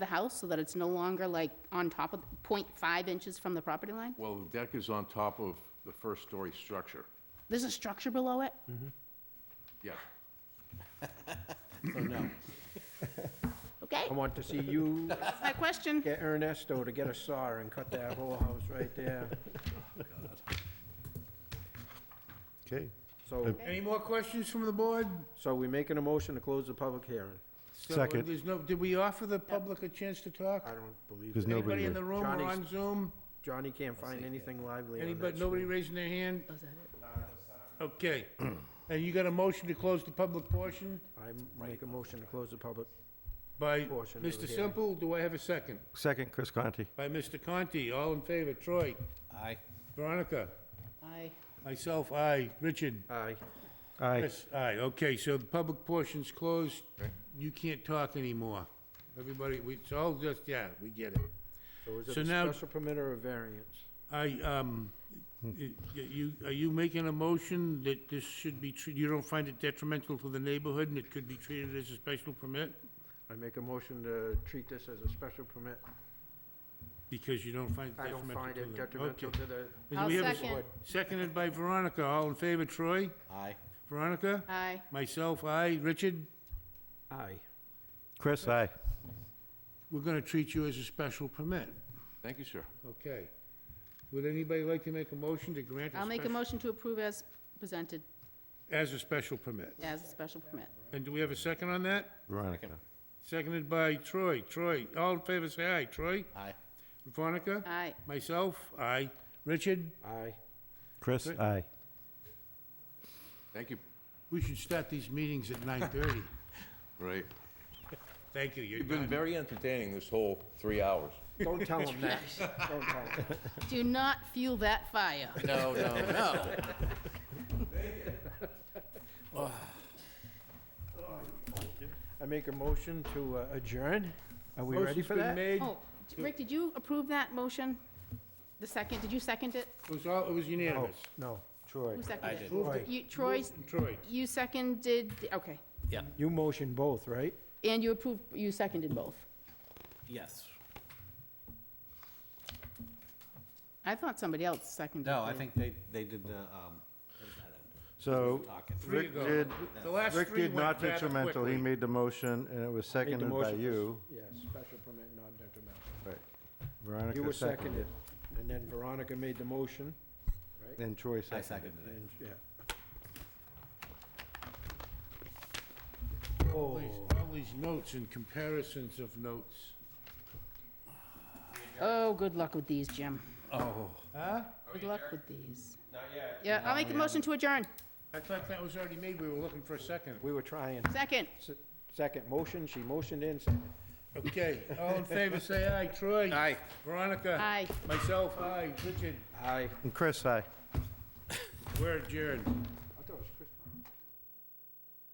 the house so that it's no longer like on top of, 0.5 inches from the property line? Well, the deck is on top of the first-story structure. There's a structure below it? Yeah. Okay, I want to see you that's my question. get Ernesto to get a saw and cut that whole house right there. Okay. So, Any more questions from the board? so we making a motion to close the public hearing? So Second. There's no, did we offer the public a chance to talk? I don't believe Because it. nobody Anybody in did. the room or Johnny's- on Zoom? Johnny can't find anything lively on that Anybody, nobody screen. raising their hand? Okay. And you got a motion to close the public portion I make a motion to close the public. by Portion of the Mr. hearing. Simple? Do I have a second? Second, Chris Conti. By Mr. Conti, all in favor? Troy? Aye. Veronica? Aye. Myself, aye. Richard? Aye. Aye. Chris, aye. Okay, so the public portion's closed. You can't talk anymore. Everybody, we, it's all just, yeah, we get it. So is it So a now- special permit or a variance? I, um, y- y- you, are you making a motion that this should be, treat- you don't find it detrimental to the neighborhood and it could be treated as a special permit? I make a motion to treat this as a special permit. Because you don't find it I don't detrimental find to the... it detrimental okay. to the, And I'll we have a- second. Seconded by Veronica. All in favor, Troy? Aye. Veronica? Aye. Myself, aye. Richard? aye. Chris, aye. We're gonna treat you as a special permit. Thank you, sir. Okay. Would anybody like to make a motion to grant a I'll make a special- motion to approve as presented, As a special permit. as a special permit. And do we have a second on that? Veronica. Seconded by Troy. Troy, all in favor, say aye. Troy? Aye. Veronica? Aye. Myself, aye. Richard? Aye. Chris, aye. Thank you. We should start these meetings at nine thirty. Right. Thank you, you're You've been done. very entertaining this whole three hours. Don't tell him that. Don't tell him. Do not fuel that fire. No, no, no. I make a motion to uh, adjourn. Are we ready Motion's for been that? made. Oh, Rick, did you approve that motion? The second, did you second it? It was all, it was No, Oh. unanimous. no, Troy. Who seconded it? Troy, You, Troy, Troy, you seconded, okay. you motion both, right? And you approved, you seconded both. Yes. I thought somebody else seconded. No, I it. think they, they did the, um, So Talking. three Rick ago. did, The last Rick three did went not rather detrimental. He quickly. made the motion and it was Made the seconded by motion for- you. Yeah, special permit, non detrimental. Right. Veronica You were seconded. seconded, and then Veronica made the motion, And Troy I seconded. seconded it. and, yeah. Oh, all these, all these notes and comparisons of notes. Oh, good luck with these, Jim. Oh. Huh? Good luck with these. Not yet. Yeah, I'll make a motion to adjourn. I thought that was already made, we were looking for a second. we were trying. Second. Se- Second motion, she motioned in, second. Okay, all in favor, say aye. Troy? Aye. Veronica? Aye. Myself, aye. Richard, Aye. And Chris, aye. we're adjourned.